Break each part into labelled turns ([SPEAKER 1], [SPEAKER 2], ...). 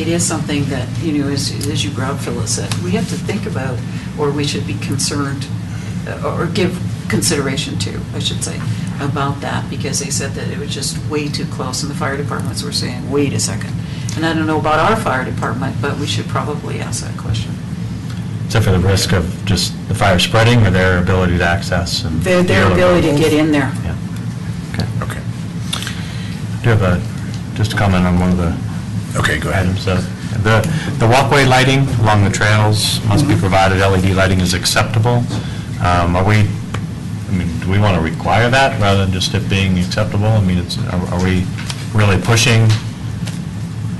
[SPEAKER 1] It is something that, you know, as, as you brought Phyllis, that we have to think about, or we should be concerned, uh, or give consideration to, I should say, about that, because they said that it was just way too close, and the fire departments were saying, wait a second. And I don't know about our fire department, but we should probably ask that question.
[SPEAKER 2] Except for the risk of just the fire spreading or their ability to access and...
[SPEAKER 1] Their, their ability to get in there.
[SPEAKER 2] Yeah. Okay.
[SPEAKER 3] Okay,
[SPEAKER 2] Do you have a, just a comment on one of the
[SPEAKER 3] okay, go ahead.
[SPEAKER 2] items? uh, The, the walkway lighting along the trails must be provided, LED lighting is acceptable. Um, Are we, I mean, do we want to require that rather than just it being acceptable? I mean, it's, are are we really pushing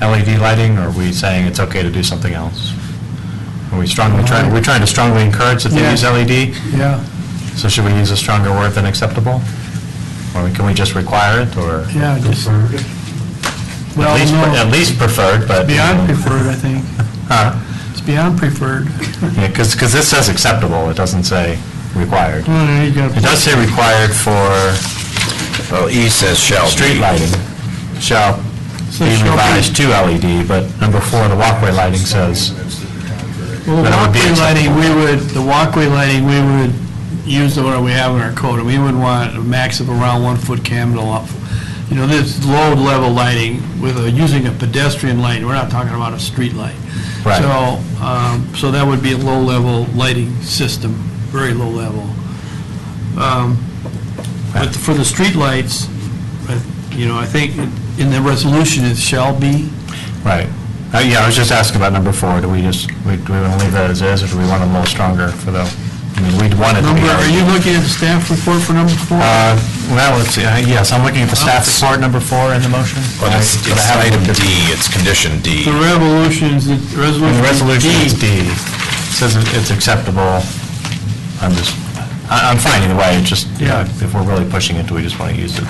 [SPEAKER 2] LED lighting, or are we saying it's okay to do something else? Are we strongly trying, are we trying to strongly encourage that they
[SPEAKER 4] Yeah.
[SPEAKER 2] use LED?
[SPEAKER 4] Yeah,
[SPEAKER 2] So should we use a stronger word than acceptable? Or can we just require it, or?
[SPEAKER 4] yeah, just,
[SPEAKER 2] At least,
[SPEAKER 4] well,
[SPEAKER 2] at
[SPEAKER 4] no,
[SPEAKER 2] least preferred, but.
[SPEAKER 4] beyond preferred, I think. It's beyond preferred.
[SPEAKER 2] Because, because this says acceptable, it doesn't say required.
[SPEAKER 4] Well, there you go.
[SPEAKER 2] It does say required for
[SPEAKER 3] Well, E says shall be.
[SPEAKER 2] street lighting shall
[SPEAKER 4] So
[SPEAKER 2] be
[SPEAKER 4] shall be.
[SPEAKER 2] revised to LED, but number four, the walkway lighting says,
[SPEAKER 4] Well, the
[SPEAKER 2] That would be
[SPEAKER 4] walkway lighting,
[SPEAKER 2] acceptable.
[SPEAKER 4] we would, the walkway lighting, we would use the one we have in our code. We would want a max of around one foot candle up. You know, this low level lighting with a, using a pedestrian light, we're not talking about a street light.
[SPEAKER 2] Right.
[SPEAKER 4] So, um, so that would be a low level lighting system, very low level. Um, But for the street lights, I- you know, I think in the resolution it shall be.
[SPEAKER 2] right. Uh, Yeah, I was just asking about number four, do we just, we- do we want to leave that as is, or do we want it a little stronger for the, I mean, we'd want it to be.
[SPEAKER 4] Number, are
[SPEAKER 2] LED.
[SPEAKER 4] you looking at the staff report for number four?
[SPEAKER 2] Uh, Well, let's see, uh, yes, I'm looking at the staff
[SPEAKER 4] Oh.
[SPEAKER 2] report, number four in the motion.
[SPEAKER 3] Well, it's
[SPEAKER 2] But I
[SPEAKER 3] it's
[SPEAKER 2] haven't
[SPEAKER 4] E
[SPEAKER 3] item
[SPEAKER 2] looked at-
[SPEAKER 3] D, it's condition D.
[SPEAKER 4] The revolutions, the resolution.
[SPEAKER 2] And the resolution is D. It Says it- it's acceptable. I'm just, I- I'm fine either way, it's just, you know,
[SPEAKER 4] Yeah.
[SPEAKER 2] if we're really pushing it, do we just want to use it?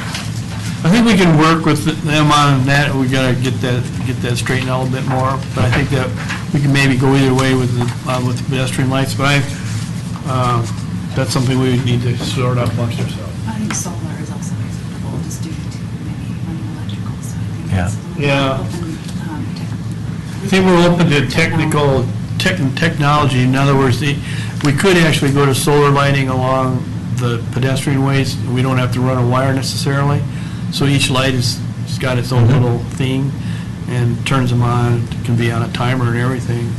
[SPEAKER 4] I think we can work with them on that, we gotta get that, get that straightened out a little bit more, but I think that we can maybe go either way with the, uh, with the pedestrian lights, but I, uh, that's something we would need to sort out amongst ourselves.
[SPEAKER 5] I think solar is also acceptable, just due to maybe running electrical, so I think
[SPEAKER 2] Yeah.
[SPEAKER 5] that's. a little
[SPEAKER 4] Yeah.
[SPEAKER 5] open, um, tech-
[SPEAKER 4] I think we're open to technical, tech, technology, in other words, the, we could actually go to solar lighting along the pedestrian ways, we don't have to run a wire necessarily, so each light is, has got its own little thing, and turns them on, can be on a timer and everything.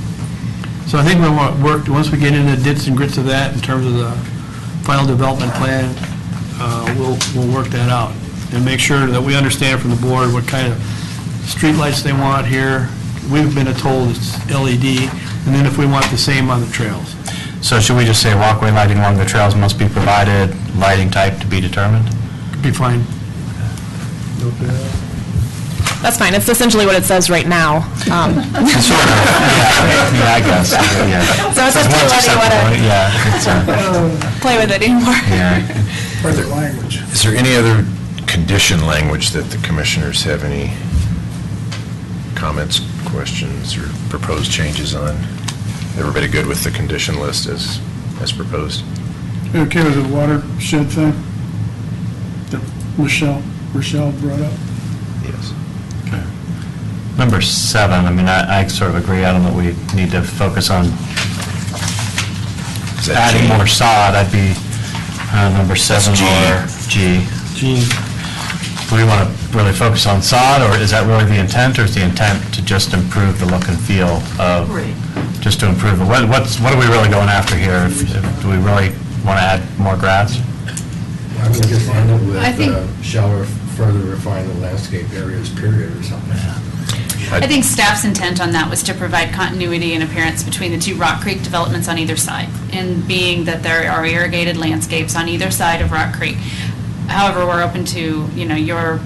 [SPEAKER 4] So I think we want, work, once we get into dits and grits of that, in terms of the final development plan, uh, we'll, we'll work that out, and make sure that we understand from the board what kind of streetlights they want here. We've been told it's LED, and then if we want the same on the trails.
[SPEAKER 2] So should we just say walkway lighting along the trails must be provided, lighting type to be determined?
[SPEAKER 4] Could Be fine.
[SPEAKER 6] That's fine. It's essentially what it says right now. Um,
[SPEAKER 2] Sort of, yeah, yeah, I guess, yeah.
[SPEAKER 6] So it's up to
[SPEAKER 2] Well,
[SPEAKER 6] whether you want
[SPEAKER 2] acceptable, Yeah, it's, uh,
[SPEAKER 6] to play with it anymore.
[SPEAKER 2] yeah.
[SPEAKER 3] Is there any other condition language that the commissioners have any comments, questions, or proposed changes on? Everybody good with the condition list as, as proposed?
[SPEAKER 7] You okay with the watershed thing that Michelle, Rochelle brought up?
[SPEAKER 3] Yes.
[SPEAKER 2] Number seven, I mean, I I sort of agree, I don't know, we need to focus on
[SPEAKER 3] Is that
[SPEAKER 2] adding
[SPEAKER 3] G?
[SPEAKER 2] more sod, I'd be uh, number seven
[SPEAKER 3] G.
[SPEAKER 2] or G.
[SPEAKER 4] Gene,
[SPEAKER 2] Do we want to really focus on sod, or is that really the intent, or is the intent to just improve the look and feel of,
[SPEAKER 1] Right.
[SPEAKER 2] just to improve, it? What- what's, what are we really going after here? If- if- Do we really want to add more grass?
[SPEAKER 8] I would just end it with,
[SPEAKER 9] I think-
[SPEAKER 8] uh, shall ref- further refine the landscape areas period or something.
[SPEAKER 9] I think staff's intent on that was to provide continuity and appearance between the two Rock Creek developments on either side, and being that there are irrigated landscapes on either side of Rock Creek. However, we're open to, you know, your,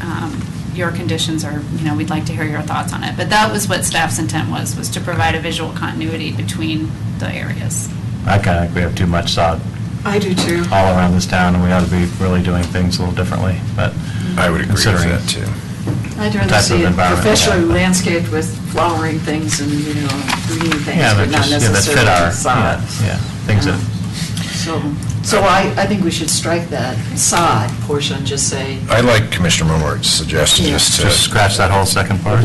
[SPEAKER 9] um, your conditions or, you know, we'd like to hear your thoughts on it. But that was what staff's intent was, was to provide a visual continuity between the areas.
[SPEAKER 2] I kind of think we have too much sod
[SPEAKER 1] I do too.
[SPEAKER 2] all around this town, and we ought to be really doing things a little differently, but.
[SPEAKER 3] I would agree with
[SPEAKER 2] Considering-
[SPEAKER 3] that, too.
[SPEAKER 1] I'd
[SPEAKER 2] Type
[SPEAKER 1] rather
[SPEAKER 2] of
[SPEAKER 1] see it
[SPEAKER 2] environment,
[SPEAKER 1] professionally
[SPEAKER 2] yeah.
[SPEAKER 1] landscaped with flowering things and, you know, green things,
[SPEAKER 2] Yeah,
[SPEAKER 1] but
[SPEAKER 2] that
[SPEAKER 1] not
[SPEAKER 2] just, yeah, that fit
[SPEAKER 1] necessarily
[SPEAKER 2] our,
[SPEAKER 1] sod.
[SPEAKER 2] yeah, yeah, things that,
[SPEAKER 1] So, so I, I think we should strike that sod portion, just say
[SPEAKER 3] I like Commissioner Momart's suggestion,
[SPEAKER 1] Yeah.
[SPEAKER 3] just to.
[SPEAKER 2] just scratch that whole second part.